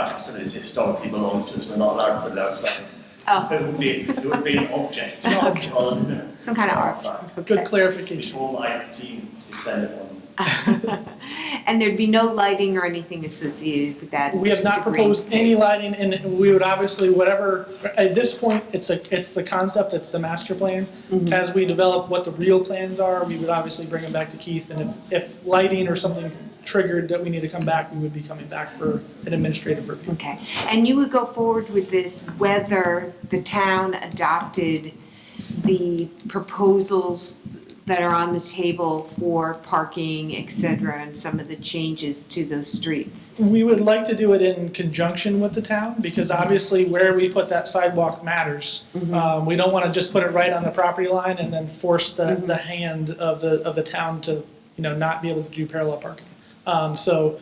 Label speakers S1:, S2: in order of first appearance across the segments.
S1: customers historically belongs to us, we're not allowed to put it outside.
S2: Oh,
S1: It would be, it would be an object
S2: Okay.
S1: on,
S2: some kind of art.
S3: Good
S2: Okay.
S1: it's
S3: clarification.
S1: all my team to send it on.
S2: And there'd be no lighting or anything associated with that? It's
S3: We have
S2: just
S3: not
S2: a green
S3: proposed any
S2: space.
S3: lighting, and we would obviously, whatever, at this point, it's a, it's the concept, it's the master plan.
S2: Mm-hmm.
S3: As we develop what the real plans are, we would obviously bring them back to Keith, and if, if lighting or something triggered that we need to come back, we would be coming back for an administrative review.
S2: Okay, and you would go forward with this whether the town adopted the proposals that are on the table for parking, et cetera, and some of the changes to those streets?
S3: We would like to do it in conjunction with the town, because obviously where we put that sidewalk matters. Um, we don't wanna just put it right on the property line and then force the, the hand of the, of the town to, you know, not be able to do parallel parking. Um, so,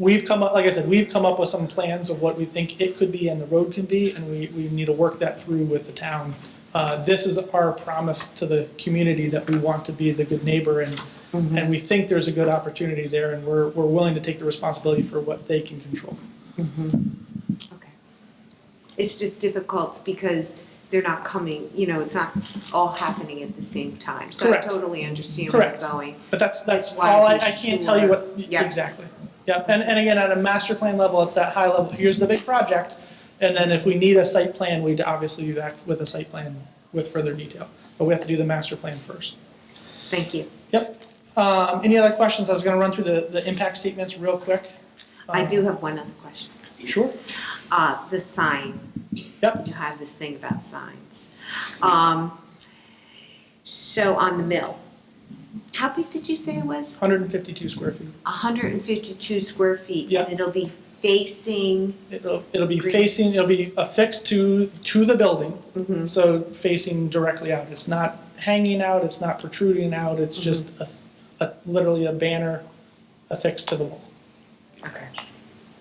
S3: we've come up, like I said, we've come up with some plans of what we think it could be and the road can be, and we, we need to work that through with the town. Uh, this is our promise to the community that we want to be the good neighbor and,
S2: Mm-hmm.
S3: and we think there's a good opportunity there and we're, we're willing to take the responsibility for what they can control.
S2: Okay. It's just difficult because they're not coming, you know, it's not all happening at the same time. So I
S3: Correct.
S2: totally understand where you're
S3: Correct.
S2: going.
S3: But that's, that's
S2: That's why
S3: all, I,
S2: we
S3: I can't tell you what,
S2: should- yeah.
S3: exactly. Yeah, and, and again, at a master plan level, it's that high level, here's the big project. And then if we need a site plan, we'd obviously be back with a site plan with further detail. But we have to do the master plan first.
S2: Thank you.
S3: Yep. Um, any other questions? I was gonna run through the, the impact statements real quick.
S2: I
S3: Um,
S2: do have one other question.
S3: Sure.
S2: Uh, the sign.
S3: Yep.
S2: You have this thing about signs. Um, so on the mill, how big did you say it was?
S3: Hundred and fifty-two square feet.
S2: hundred and fifty-two square feet.
S3: Yeah.
S2: And it'll be facing,
S3: It'll, it'll be
S2: Green.
S3: facing, it'll be affixed to, to the
S2: Mm-hmm.
S3: building, so facing directly out. It's not hanging out, it's not protruding out, it's just a,
S2: Mm-hmm.
S3: a, literally a banner affixed to the wall.
S2: okay,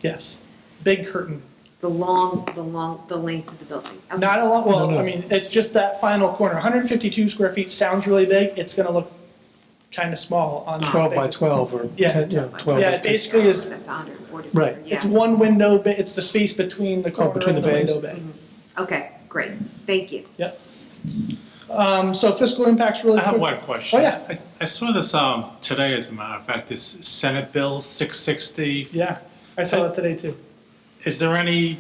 S3: Yes. Big curtain.
S2: the long, the long, the length of the building. Okay.
S3: Not a lot,
S4: No,
S3: well,
S4: no.
S3: I mean, it's just that final corner. hundred and fifty-two square feet sounds really big, it's gonna look kinda small on. how
S4: 12 by
S3: big-
S4: 12 or
S3: Uh, Yeah.
S4: 10, yeah, 12.
S3: Yeah,
S4: by
S3: it basically is-
S2: That's hundred and forty.
S4: Right.
S3: It's one window, ba- it's the space between the corner
S4: Oh, between
S3: and the
S4: the bays.
S3: window bay.
S2: Okay, great, thank you.
S3: Yep. Um, so fiscal impacts really
S5: I have
S3: quick.
S5: one question.
S3: Oh, yeah.
S5: I, I saw this, um, today as a matter of fact, this Senate Bill six sixty.
S3: Yeah, I saw that today too.
S5: Is there any,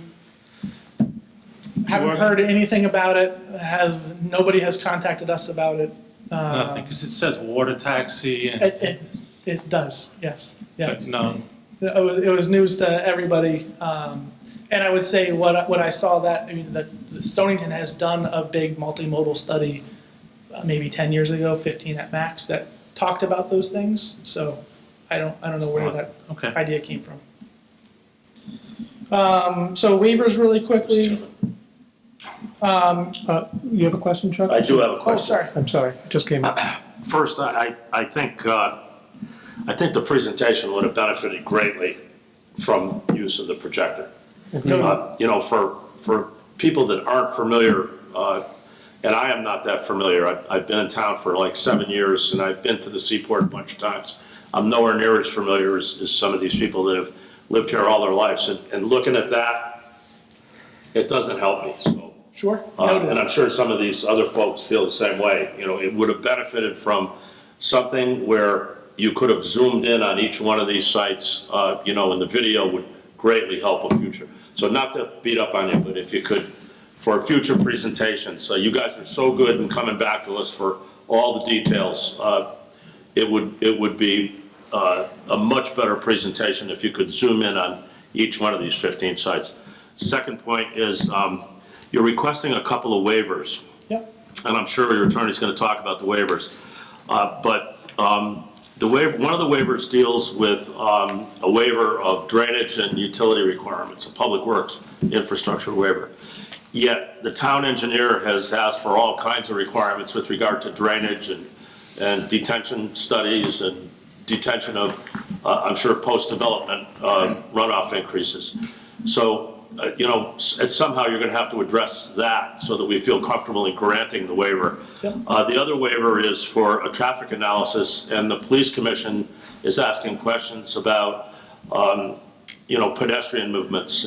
S3: Haven't
S5: Sure.
S3: heard anything about it, has, nobody has contacted us about it. Uh,
S5: nothing, because it says water taxi and,
S3: It, it, it does, yes, yeah.
S5: but no.
S3: It was, it was news to everybody, um, and I would say what, I- what I saw that, I mean, that Stonington has done a big multimodal study uh, maybe ten years ago, fifteen at max, that talked about those things, so I don't, I don't know where that
S5: Okay.
S3: idea came from. Um, so waivers really quickly,
S4: Uh, You have a question, Chuck?
S6: I do have a
S3: oh,
S6: question.
S3: sorry.
S4: I'm sorry, it just came up.
S6: First, I, I I think, uh, I think the presentation would have benefited greatly from use of the projector.
S3: Mm-hmm.
S6: Uh, You know, for, for people that aren't familiar, uh, and I am not that familiar, I've, I've been in town for like seven years, and I've been to the Seaport a bunch of times. I'm nowhere near as familiar as, as some of these people that have lived here all their lives, and, and looking at that, it doesn't help me, so.
S3: Sure,
S6: Uh, And
S3: noted.
S6: I'm sure some of these other folks feel the same way. You know, it would have benefited from something where you could have zoomed in on each one of these sites, uh, you know, and the video would greatly help a future. So not to beat up on you, but if you could, for a future presentation, so you guys are so good in coming back to us for all the details. uh, It would, it would be uh, a much better presentation if you could zoom in on each one of these 15 sites. Second point is, um, you're requesting a couple of waivers,
S3: Yep,
S6: and I'm sure your attorney's going to talk about the waivers. Uh, But um, the waiver, one of the waivers deals with um, a waiver of drainage and utility requirements, a public works infrastructure waiver. Yet, the town engineer has asked for all kinds of requirements with regard to drainage and, and detention studies and detention of, uh, I'm sure, post-development uh, runoff increases. So, uh, you know, s- it's somehow you're going to have to address that so that we feel comfortable in granting the waiver.
S3: Yep.
S6: Uh, The other waiver is for a traffic analysis, and the police commission is asking questions about, um, you know, pedestrian movements